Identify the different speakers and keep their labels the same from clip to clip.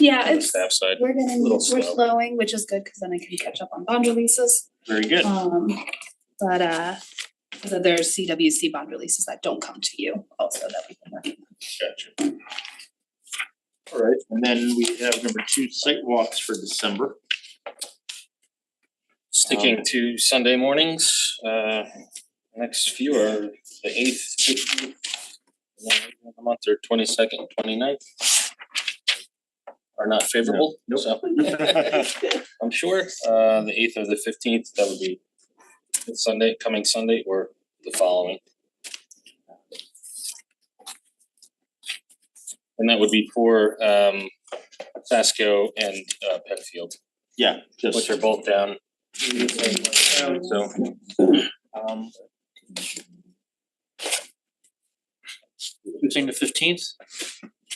Speaker 1: Yeah,
Speaker 2: on the
Speaker 1: it's,
Speaker 2: staff side.
Speaker 1: we're gonna,
Speaker 2: little
Speaker 1: we're
Speaker 2: slow.
Speaker 1: slowing, which is good, cause then I can catch up on bond releases.
Speaker 2: Very good.
Speaker 1: Um, but uh, so there's CWC bond releases that don't come to you also that we can work.
Speaker 2: Gotcha. All right, and then we have number two, site walks for December.
Speaker 1: um,
Speaker 3: Sticking to Sunday mornings, uh, next few are the eighth, fifteenth. The month are twenty second, twenty ninth. Are not favorable,
Speaker 2: Nope.
Speaker 3: so. I'm sure, uh, the eighth or the fifteenth, that would be Sunday, coming Sunday or the following. And that would be for, um, Pasco and, uh, Penfield,
Speaker 2: Yeah,
Speaker 3: which
Speaker 2: just.
Speaker 3: are both down so. Um. You think the fifteenth?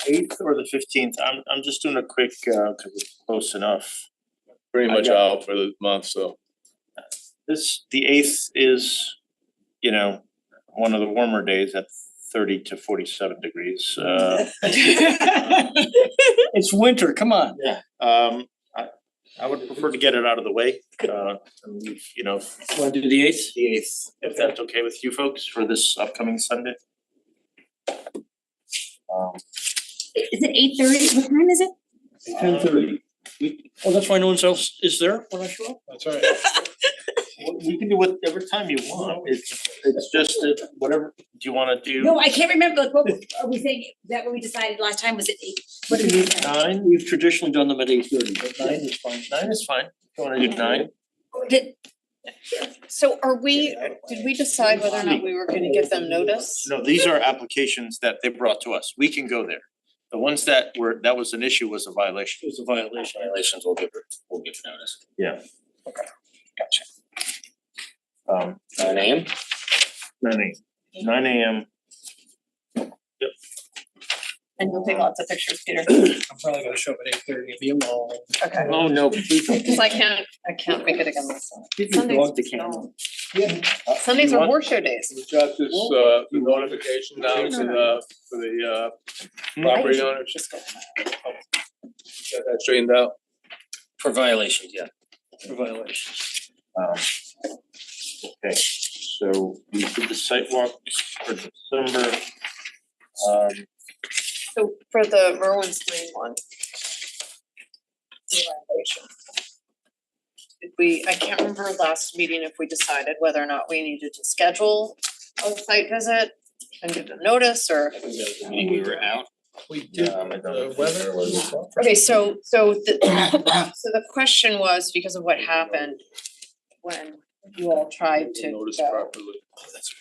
Speaker 2: Eighth or the fifteenth, I'm I'm just doing a quick, uh, cause it's close enough.
Speaker 4: pretty
Speaker 2: I
Speaker 4: much
Speaker 2: got-
Speaker 4: out for the month, so.
Speaker 2: This, the eighth is, you know, one of the warmer days at thirty to forty-seven degrees, uh.
Speaker 5: It's winter, come on.
Speaker 2: Yeah, um, I I would prefer to get it out of the way, uh, and leave, you know,
Speaker 5: Wanna do the eighth?
Speaker 2: the eighth, if that's okay with you folks for this upcoming Sunday. Um,
Speaker 6: Is it eight thirty? What time is it?
Speaker 5: Ten thirty. Well, that's why no one else is there when I show up.
Speaker 2: That's all right. We can do whatever time you want, it's it's just that whatever, do you wanna do
Speaker 6: No, I can't remember. Like, what are we saying? That what we decided last time was at eight? What did we
Speaker 5: Uh,
Speaker 6: decide?
Speaker 2: nine?
Speaker 5: We've traditionally done them at eight thirty, but
Speaker 2: Nine
Speaker 5: nine,
Speaker 2: is fine, nine is fine, if you wanna do nine,
Speaker 6: Did-
Speaker 7: So are we, did we decide whether or not we were gonna give them notice?
Speaker 2: no, these are applications that they brought to us, we can go there. The ones that were, that was an issue was a
Speaker 5: it
Speaker 2: violation.
Speaker 5: was a violation.
Speaker 3: Violations will give, her- will give notice.
Speaker 2: Um,
Speaker 3: Nine AM?
Speaker 2: nine a- nine AM,
Speaker 7: And you'll take lots of pictures, Peter,
Speaker 5: I'm probably gonna show up at eight thirty and be alone.
Speaker 7: okay,
Speaker 3: Oh, no, please don't.
Speaker 7: cause I can't, I can't make it again myself.
Speaker 5: Get your
Speaker 7: Sundays
Speaker 5: dog to
Speaker 7: just
Speaker 5: kennel.
Speaker 7: don't. Sundays are
Speaker 2: want-
Speaker 7: horse show days.
Speaker 4: We got this, uh, the notification down to the, for the, uh, property owners. Got that straightened out.
Speaker 3: For violations, yeah.
Speaker 5: For violations.
Speaker 2: Um, okay, so we did the sidewalk for December. Um,
Speaker 7: So for the Merwin's Lane one. the violation. Did we, I can't remember last meeting if we decided whether or not we needed to schedule a site visit and give them notice or.
Speaker 3: We were out.
Speaker 5: We did
Speaker 3: Um, I
Speaker 5: the
Speaker 3: don't-
Speaker 5: weather.
Speaker 7: Okay, so so the, so the question was because of what happened when you all tried to
Speaker 4: Notice
Speaker 7: go
Speaker 4: properly.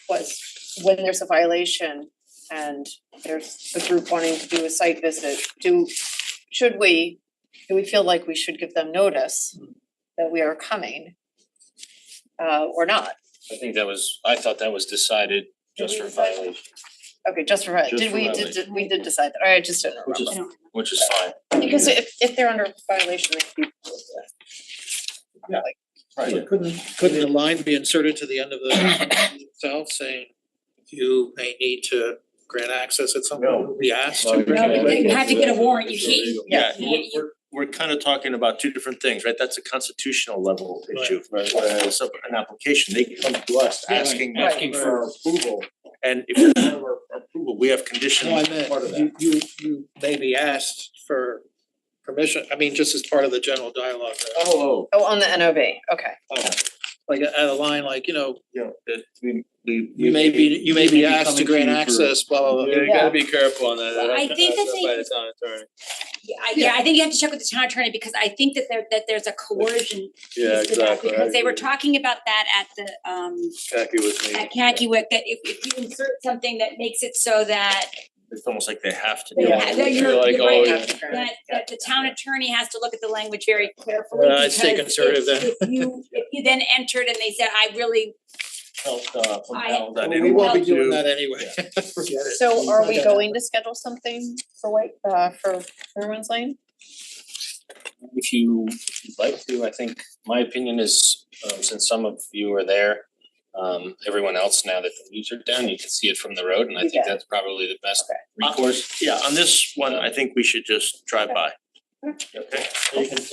Speaker 7: was when there's a violation and there's the group wanting to do a site visit, do, should we, do we feel like we should give them notice that we are coming? Uh, or not?
Speaker 3: I think that was, I thought that was decided just for violation,
Speaker 7: Okay, just for,
Speaker 3: Just
Speaker 7: did
Speaker 3: for
Speaker 7: we, did, did- we did decide that, I just didn't
Speaker 5: Which is-
Speaker 7: remember.
Speaker 3: which is fine.
Speaker 7: Because if, if they're under violation, they could be.
Speaker 5: So Couldn't, couldn't a line be inserted to the end of the itself saying you may need to grant access at some
Speaker 2: No.
Speaker 5: point? Be asked to.
Speaker 4: No,
Speaker 5: grant
Speaker 6: No,
Speaker 5: access?
Speaker 6: you have to get a warrant. You can't.
Speaker 2: yeah,
Speaker 6: Yeah,
Speaker 2: we're
Speaker 6: you-
Speaker 2: we're we're kind of talking about two different things, right? That's a constitutional level
Speaker 5: Right.
Speaker 2: issue. Whereas of an application, they come to us
Speaker 5: Yeah, right.
Speaker 2: asking
Speaker 5: Asking
Speaker 2: for approval. And if we have our approval, we have
Speaker 5: No, I
Speaker 2: conditions part of
Speaker 5: meant,
Speaker 2: that.
Speaker 5: you you you may be asked for permission, I mean, just as part of the general dialogue, uh,
Speaker 2: Oh,
Speaker 7: Oh, on the NOV, okay.
Speaker 5: like at a line like, you know,
Speaker 2: yeah, that we we
Speaker 5: you may be, you may be asked to grant
Speaker 2: coming to you for-
Speaker 5: access, blah, blah, blah.
Speaker 4: Yeah, you gotta be careful on that.
Speaker 6: Well, I think that they-
Speaker 4: By the town attorney.
Speaker 6: Yeah, I- yeah, I think you have to check with the town attorney because I think that there, that there's a coercion
Speaker 4: Yeah,
Speaker 6: piece to that
Speaker 4: exactly. I
Speaker 6: because they were
Speaker 4: agree.
Speaker 6: talking about that at the, um,
Speaker 4: Khaki with me.
Speaker 6: at Kankiewicz, that if, if you insert something that makes it so that,
Speaker 2: It's almost like they have to.
Speaker 6: Yeah,
Speaker 2: do it.
Speaker 6: I know you're-
Speaker 4: You're like,
Speaker 6: you're right.
Speaker 4: oh, yeah.
Speaker 7: After grant.
Speaker 6: that, that the town attorney has to look at the language very carefully.
Speaker 5: Uh, I'd stay
Speaker 6: because
Speaker 5: conservative
Speaker 6: if-
Speaker 5: then.
Speaker 6: If you, if you then entered and they said, I really,
Speaker 2: felt uh compelled
Speaker 5: Well,
Speaker 2: that
Speaker 5: We won't be
Speaker 2: they
Speaker 5: doing
Speaker 2: don't
Speaker 5: that
Speaker 2: want
Speaker 5: anyway. Forget it.
Speaker 7: So are we going to schedule something for White, uh, for Merwin's Lane?
Speaker 3: If you if you'd like to, I think my opinion is, um, since some of you are there, um, everyone else now that the leaves are down, you can see it from the road, and I think
Speaker 7: Yeah.
Speaker 3: that's probably the best
Speaker 7: Okay.
Speaker 3: recourse.
Speaker 2: to. Yeah, on this one, I think we should just drive by.
Speaker 8: Okay.
Speaker 2: You can